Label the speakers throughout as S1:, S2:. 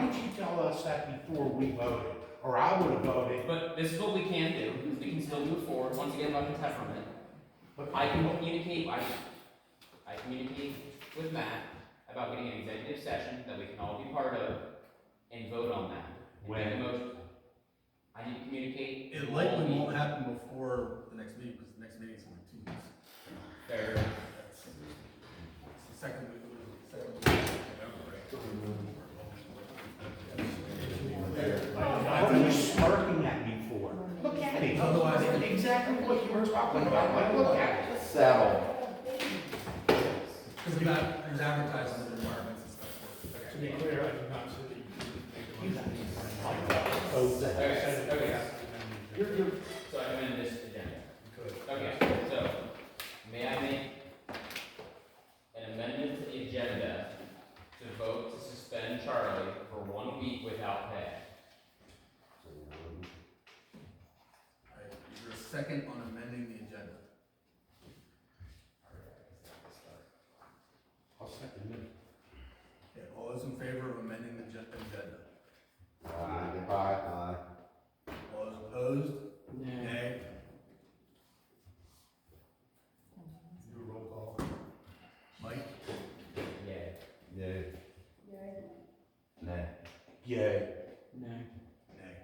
S1: didn't you tell us that before we voted? Or I would have voted,
S2: But this is what we can do, is we can still move forward, once again, about the temperament.
S1: but
S2: I can communicate, I, I communicate with Matt about getting an executive session that we can all be part of and vote on that. and make a
S1: When?
S2: motion. I need to communicate.
S3: It likely won't happen before the next meeting, because the next meeting is only two weeks.
S2: Fair.
S3: That's- It's the second week, of- second week of
S1: What are you smirking at me for? Look at him.
S3: Otherwise-
S1: Exactly what you were talking about, like, look at it.
S4: Settle.
S3: Because we've got, there's advertising requirements and stuff. for it.
S5: To be clear, I did not see
S2: Okay,
S5: the.
S2: okay, so I amend this agenda. Okay, so, may I make an amendment to the agenda to vote to suspend Charlie for one week without pay?
S3: All right, Is there a second on amending the agenda?
S1: I'll second it.
S3: Okay, all those in favor of amending the gen- agenda?
S4: Aye.
S3: All those opposed? Nay?
S5: Do a roll call.
S3: Mike?
S2: Yeah.
S4: Yay. Nay.
S1: Yay.
S2: No.
S3: Nay.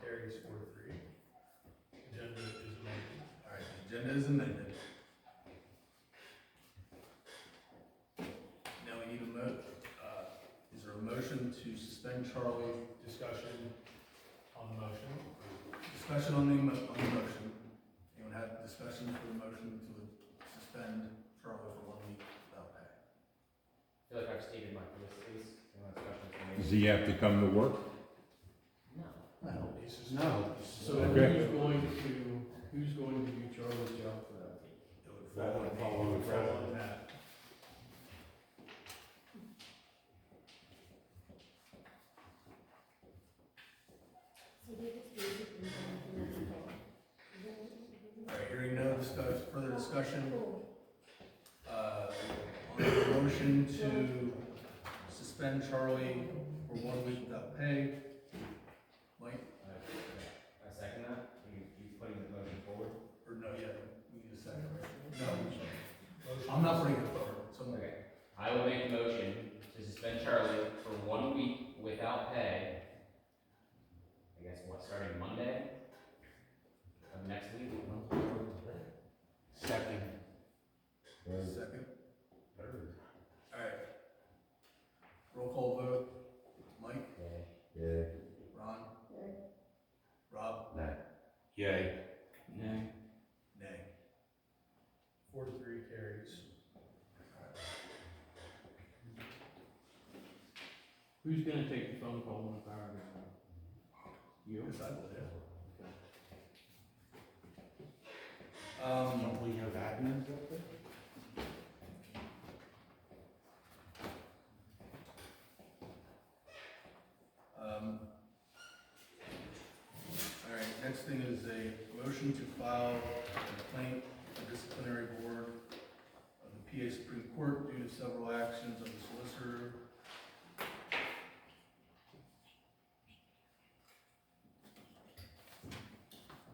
S5: Carries four to three. Agenda is amended.
S3: All right, the agenda is amended. Now we need a mo, uh, is there a motion to suspend Charlie
S5: Discussion on the motion.
S3: Discussion on the, mo- on the motion. Anyone have discussion for the motion to suspend Charlie for one week without pay?
S2: I feel like I've stated my case, anyone have
S6: Does
S2: questions
S6: he have to come to work?
S2: for me?
S1: No,
S5: He sus-
S1: no.
S7: So
S6: Okay.
S7: who's going to, who's going to do Charlie's job for that?
S3: It would
S1: That would fall
S3: on
S1: on
S3: me.
S1: the president.
S3: Fall on that. All right, hearing no discuss, further discussion. Uh, on the motion to suspend Charlie for one week without pay. Mike,
S2: I second that, you, you putting the motion forward?
S3: or no, yeah, we need a second. No, I'm not bringing it forward, someone.
S2: Okay, I will make a motion to suspend Charlie for one week without pay. I guess what, starting Monday of next week?
S1: Second.
S3: Second. Alright. Roll call vote, Mike,
S4: Yay.
S3: Ron. Rob,
S4: Nay.
S1: Yay.
S2: No.
S3: nay.
S5: Four to three carries.
S7: Who's gonna take the phone call on the power meeting? You?
S3: Yes, I believe. Um,
S1: Don't we have admins up there?
S3: um. Alright, next thing is a motion to file a complaint to the disciplinary board of the PA Supreme Court due to several actions of the solicitor.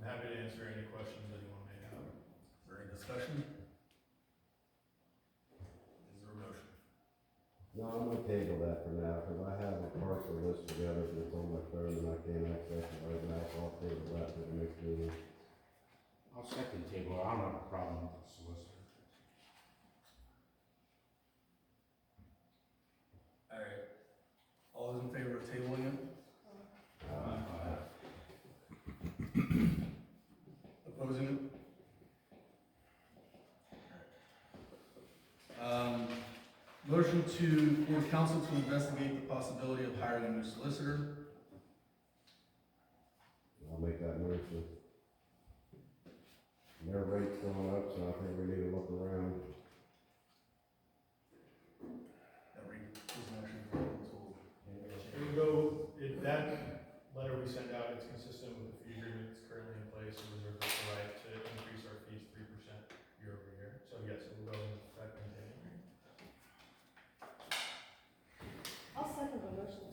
S5: I'm happy to answer any questions anyone may have.
S3: Is there any discussion? Is there a motion?
S4: No, I'm gonna table that for now, cause I have a partial list together, but it's on my phone and I can't access it right now, so I'll table that for the next meeting.
S1: I'll second table, I don't have a problem with the solicitor.
S3: Alright, all those in favor of tabling it, opposing it? Um, motion to, for council to investigate the possibility of hiring a new solicitor,
S4: I'll make that motion. Their rate's going up, so I think we need to look around.
S3: every, is an action for council.
S5: It would go, if that letter we send out, it's consistent with the fee agreement that's currently in place and reserve the